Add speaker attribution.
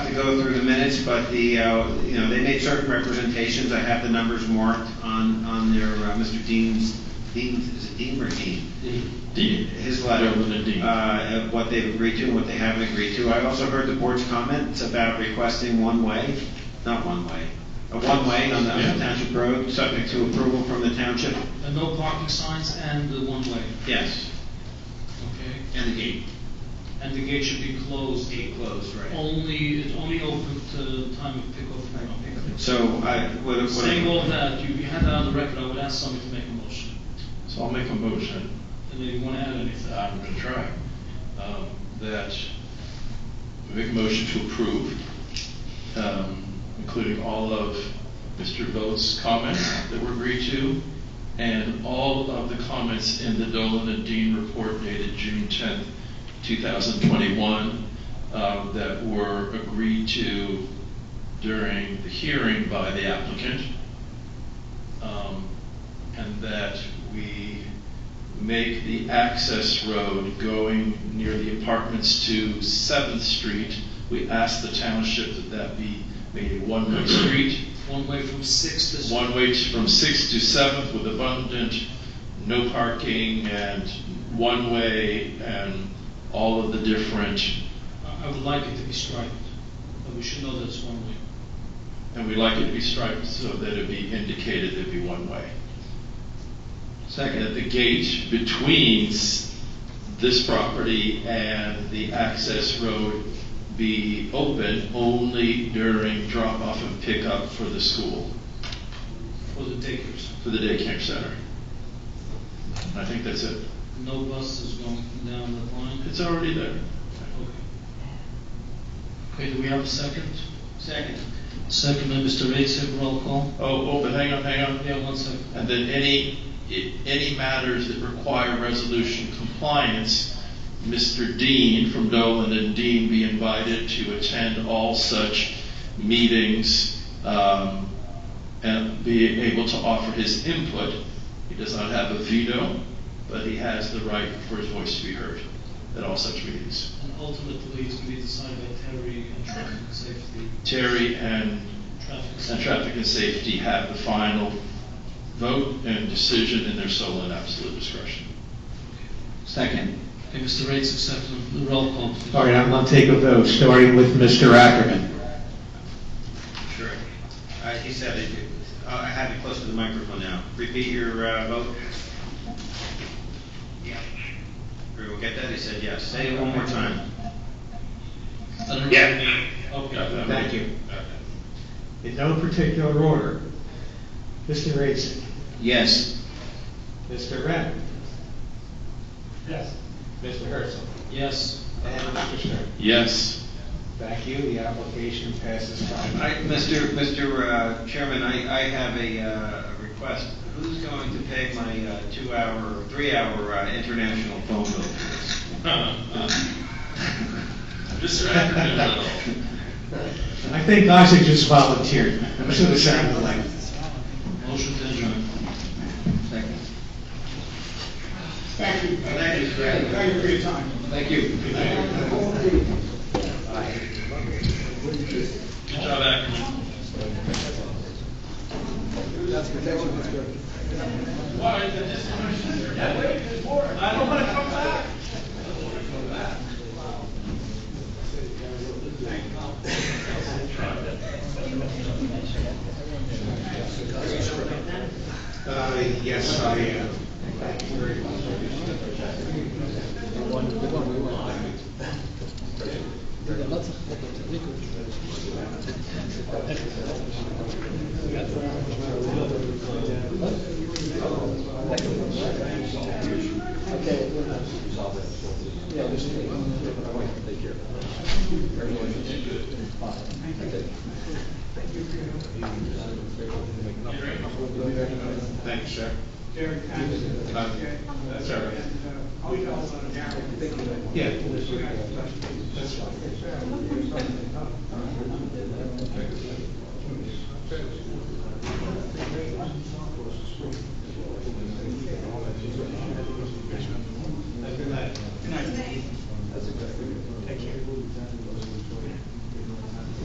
Speaker 1: to go through the minutes, but the, uh, you know, they made certain representations. I have the numbers marked on, on their, uh, Mr. Dean's, Dean's, is it Dean or Dean?
Speaker 2: Dean.
Speaker 1: his letter,
Speaker 2: There was a deed.
Speaker 1: uh, of what they've agreed to and what they haven't agreed to. I also heard the board's comments about requesting one-way, not one-way, a one-way on the on the
Speaker 2: Yeah.
Speaker 1: township road, subject to approval from the township.
Speaker 3: And no parking signs and the one-way,
Speaker 1: Yes,
Speaker 3: okay?
Speaker 1: and the gate.
Speaker 3: And the gate should be closed.
Speaker 1: Gate closed,
Speaker 3: Only, it's only open to time of pickup and pickup.
Speaker 1: So I, what, what.
Speaker 3: Saying all that, you you had that on the record, I would ask somebody to make a motion.
Speaker 2: So I'll make a motion,
Speaker 3: And if you want to add anything.
Speaker 2: I'm gonna try, um, that, we make a motion to approve, um, including all of Mr. Vogt's comments that were agreed to, and all of the comments in the Dolan and Dean report dated June tenth, two thousand twenty-one, um, that were agreed to during the hearing by the applicant. Um, and that we make the access road going near the apartments to Seventh Street. We ask the township that that be made a one-way street,
Speaker 3: One way from six to.
Speaker 2: one way to- from Sixth to Seventh with abundant, no parking and one-way and all of the different,
Speaker 3: I I would like it to be striped, but we should know that it's one way.
Speaker 2: and we like it to be striped so that it be indicated it'd be one-way. That
Speaker 1: Second.
Speaker 2: the gate between s- this property and the access road be open only during drop-off and pickup for the school,
Speaker 3: For the takers,
Speaker 2: for the daycare center. I think that's it.
Speaker 3: no buses going down that line.
Speaker 2: It's already there.
Speaker 3: Okay. Okay, do we have a second?
Speaker 1: Second.
Speaker 3: Second by Mr. Raisik, roll call.
Speaker 2: Oh, oh, but hang on, hang on.
Speaker 3: Yeah, one second.
Speaker 2: And then any, i- any matters that require resolution compliance, Mr. Dean from Dolan and Dean be invited to attend all such meetings um, and be able to offer his input. He does not have a veto, but he has the right for his voice to be heard at all such meetings.
Speaker 3: And ultimately, it's going to be decided by Terry and traffic safety,
Speaker 2: Terry and
Speaker 3: traffic
Speaker 2: and
Speaker 3: safety.
Speaker 2: Traffic and Safety have the final vote and decision in their sole and absolute discretion.
Speaker 1: Second.
Speaker 3: Okay, Mr. Raisik, second, roll call. please.
Speaker 1: All right, I'm gonna take a vote, starting with Mr. Ackerman. Sure. Uh, he said it, uh, I have it close to the microphone now. Repeat your, uh, vote. Yeah. Everyone get that? He said yes. Say it one more time.
Speaker 3: I don't- Okay.
Speaker 1: Thank you.
Speaker 4: In no particular order, Mr. Raisik,
Speaker 1: Yes.
Speaker 4: Mr. Renner. Yes. Mr. Herzl.
Speaker 3: Yes,
Speaker 4: And Mr. Stern.
Speaker 2: Yes.
Speaker 4: Thank you, the application passes
Speaker 1: I,
Speaker 4: five.
Speaker 1: Mr. Mr. uh, Chairman, I, I have a, uh, a request. Who's going to pay my, uh, two-hour, three-hour, uh, international phone bill?
Speaker 2: Mr. Ackerman.
Speaker 4: I think Isaac just volunteered, I'm sure the sound of like.
Speaker 3: motion to adjourn.
Speaker 1: Second.
Speaker 5: Thank you.
Speaker 1: Thank you, Fred.
Speaker 5: Thank you for your time.
Speaker 1: Thank you.
Speaker 2: Good job, Ackerman.
Speaker 4: Uh, yes, I am. Thank you very much. Thank you, sir. Um, That's all right. Yeah. That's fine.